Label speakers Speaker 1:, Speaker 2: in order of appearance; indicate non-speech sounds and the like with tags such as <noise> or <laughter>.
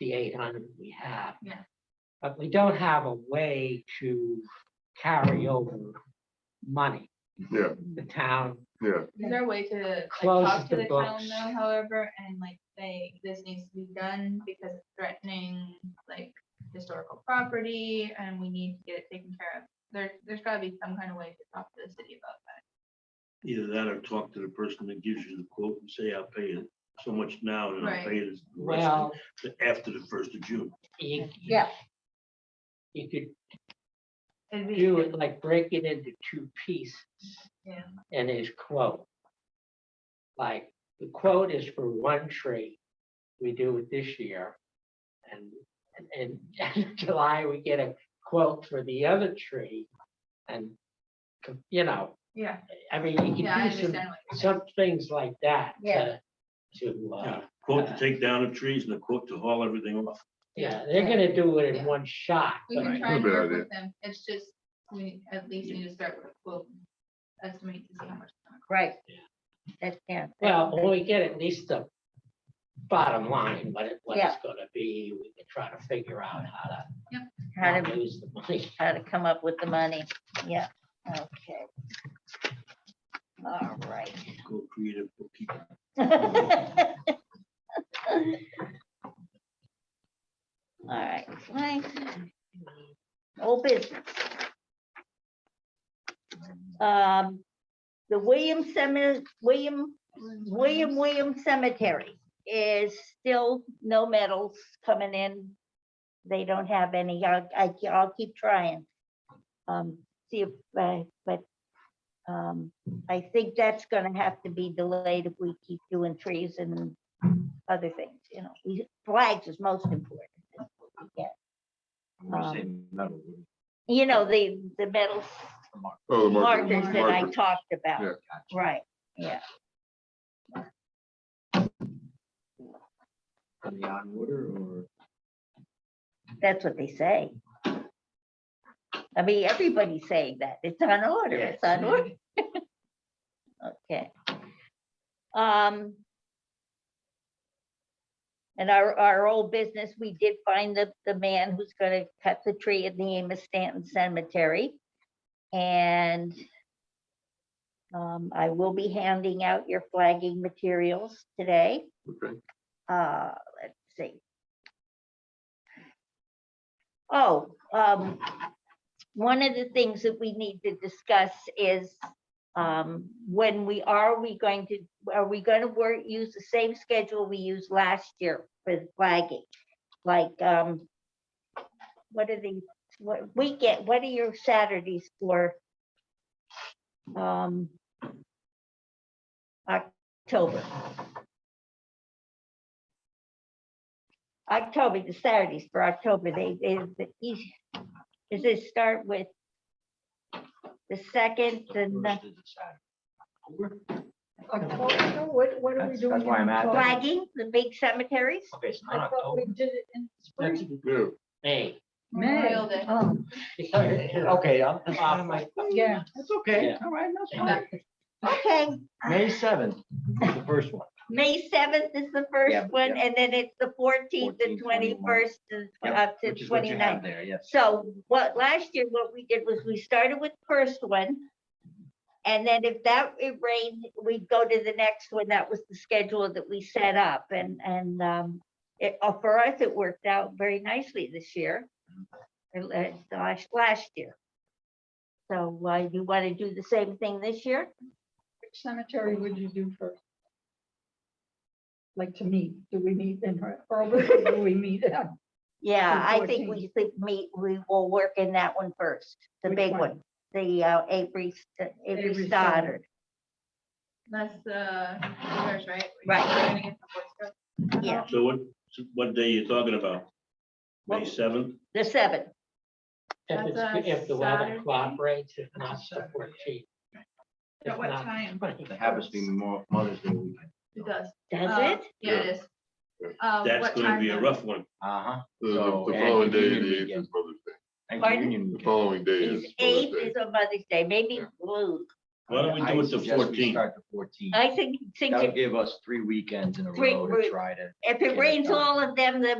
Speaker 1: the eight hundred we have.
Speaker 2: Yeah.
Speaker 1: But we don't have a way to carry over money.
Speaker 3: Yeah.
Speaker 1: The town,
Speaker 3: yeah,
Speaker 2: Is there a way to like,
Speaker 1: Close
Speaker 2: talk to
Speaker 1: the
Speaker 2: the town
Speaker 1: books.
Speaker 2: though, however, and like say, this needs to be done because it's threatening like historical property and we need to get it taken care of. There, there's gotta be some kind of way to talk to the city about that.
Speaker 4: Either that or talk to the person that gives you the quote and say, I'll pay it so much now and I'll pay it the rest
Speaker 1: well,
Speaker 4: of- after the first of June.
Speaker 1: you.
Speaker 5: Yeah.
Speaker 1: You could
Speaker 2: It'd be-
Speaker 1: do it like break it into two pieces.
Speaker 2: Yeah.
Speaker 1: And his quote. Like, the quote is for one tree, we do it this year. And, and <laughs> in July, we get a quote for the other tree. And, co- you know,
Speaker 2: Yeah,
Speaker 1: I mean, you
Speaker 2: yeah, I
Speaker 1: can do some,
Speaker 2: understand. what you're saying.
Speaker 1: some things like that.
Speaker 5: Yeah.
Speaker 1: To, to, uh,
Speaker 4: Quote to take down the trees and a quote to haul everything off.
Speaker 1: yeah, they're gonna do it in
Speaker 2: Yeah.
Speaker 1: one shot.
Speaker 2: We
Speaker 1: but-
Speaker 2: can
Speaker 4: Right.
Speaker 2: try and
Speaker 3: Good
Speaker 2: work
Speaker 3: idea.
Speaker 2: with them. It's just, we at least need to start with a quote. Estimate to see how much. it's gonna
Speaker 5: right. That, yeah. that-
Speaker 1: Well, when we get at least the bottom line, what it, what it's
Speaker 5: Yeah.
Speaker 1: gonna be, we can try to figure out how to
Speaker 5: How to,
Speaker 1: not lose the
Speaker 2: <laughs>
Speaker 1: money.
Speaker 5: how to come up with the money, yeah, okay. All right. <laughs>
Speaker 4: Go creative bookkeeping.
Speaker 5: All right, Frank. Old business. Um, the William Cemetery, William,
Speaker 2: cost.
Speaker 5: William William Cemetery is still no medals coming in. They don't have any, I'll, I, I'll keep trying. Um, see if, uh, but, um, I think that's gonna have to be delayed if we keep doing trees and other things, you know, we- flags is most important. That's what we get. Um, You know, the, the medals
Speaker 3: oh, the marker,
Speaker 5: markers that I
Speaker 3: marker,
Speaker 5: talked
Speaker 3: Yeah.
Speaker 5: about, right, yeah.
Speaker 6: Are they on order or?
Speaker 5: That's what they say. I mean, everybody's saying that. It's on order, it's on order. Okay. Um. And our, our old business, we did find the, the man who's gonna cut the tree at the Amos Stanton Cemetery. And um, I will be handing out your flagging materials today.
Speaker 3: okay.
Speaker 5: Uh, let's see. Oh, um, one of the things that we need to discuss is, um, when we, are we going to, are we gonna work, use the same schedule we used last year for the flagging? Like, um, what are the, what, we get, what are your Saturdays for? Um, October. October, the Saturdays for October, they, they, the eas- does it start with the second, the ni-
Speaker 7: October, what, what are we
Speaker 6: That's-
Speaker 7: doing?
Speaker 6: that's
Speaker 7: in
Speaker 6: why I'm asking.
Speaker 7: October?
Speaker 5: flagging, the big cemeteries?
Speaker 6: Okay, it's
Speaker 7: I
Speaker 6: not
Speaker 7: thought we
Speaker 6: October.
Speaker 7: did it in
Speaker 1: That's
Speaker 7: spring.
Speaker 3: Yeah,
Speaker 1: May.
Speaker 2: Memorial Day.
Speaker 7: Oh,
Speaker 6: Okay, I'm, I'm out of my-
Speaker 7: yeah.
Speaker 6: that's okay,
Speaker 1: Yeah.
Speaker 6: all right, that's
Speaker 2: Yeah.
Speaker 6: fine.
Speaker 5: Okay,
Speaker 6: May seventh, the first one.
Speaker 5: May seventh is the
Speaker 6: Yeah,
Speaker 5: first one,
Speaker 6: yeah.
Speaker 5: and then it's the fourteenth and
Speaker 6: 14th, 21st,
Speaker 5: twenty-first and
Speaker 6: Yep,
Speaker 5: up to
Speaker 6: Which is what you have
Speaker 5: 29th.
Speaker 6: there, yes.
Speaker 5: So what, last year, what we did was we started with the first one. And then if that, it rained, we'd go to the next one. That was the schedule that we set up and, and, um, it, uh, for us, it worked out very nicely this year. Or la- Gosh, last year. So, uh, you want to do the same thing this year?
Speaker 7: Which cemetery would you do first? Like to meet, do we meet in her, or <laughs> do we meet? at-
Speaker 5: Yeah,
Speaker 7: The
Speaker 5: I think we should meet, we will work in that one first, the
Speaker 7: Which
Speaker 5: big
Speaker 7: one?
Speaker 5: one, the, uh, Avery, St- Avery
Speaker 7: Avery Stoddard.
Speaker 5: Stoddard.
Speaker 2: That's the, yours, right?
Speaker 5: Right.
Speaker 2: We're gonna get the Boy Scouts.
Speaker 5: Yeah,
Speaker 4: So what, what day you talking about? May
Speaker 5: Well-
Speaker 4: seventh?
Speaker 5: the seventh.
Speaker 1: If it's,
Speaker 2: That's a
Speaker 1: if the weather
Speaker 2: Saturday.
Speaker 1: cooperates, if not, so fourteen.
Speaker 2: At what time?
Speaker 6: It happens to be Mo- Mother's Day weekend.
Speaker 2: It does.
Speaker 5: Does
Speaker 2: Uh,
Speaker 5: it?
Speaker 2: Yeah, it is.
Speaker 3: Yeah.
Speaker 2: Uh,
Speaker 4: That's
Speaker 2: what
Speaker 4: gonna
Speaker 2: time
Speaker 4: be a
Speaker 2: then?
Speaker 4: rough one.
Speaker 6: Uh-huh.
Speaker 3: The- The
Speaker 6: So,
Speaker 3: the
Speaker 6: and
Speaker 3: following day,
Speaker 6: Union
Speaker 3: the eighth
Speaker 6: weekend.
Speaker 3: is Mother's Day.
Speaker 6: Thank you,
Speaker 5: Pardon?
Speaker 6: Union
Speaker 3: The
Speaker 6: weekend.
Speaker 3: following day
Speaker 5: Is
Speaker 3: is Mother's
Speaker 5: eighth
Speaker 3: Day.
Speaker 5: is on Mother's Day, maybe,
Speaker 3: Yeah.
Speaker 5: we'll-
Speaker 4: Why don't we
Speaker 6: I
Speaker 4: do it the
Speaker 6: suggest we
Speaker 4: fourteenth?
Speaker 6: Start the fourteenth.
Speaker 5: I think, think
Speaker 6: That'll
Speaker 5: if
Speaker 6: give us three weekends in a
Speaker 5: Three
Speaker 6: row
Speaker 5: week-
Speaker 6: to try to
Speaker 5: if
Speaker 6: get
Speaker 5: it
Speaker 6: it
Speaker 5: rains
Speaker 6: done.
Speaker 5: all of them, then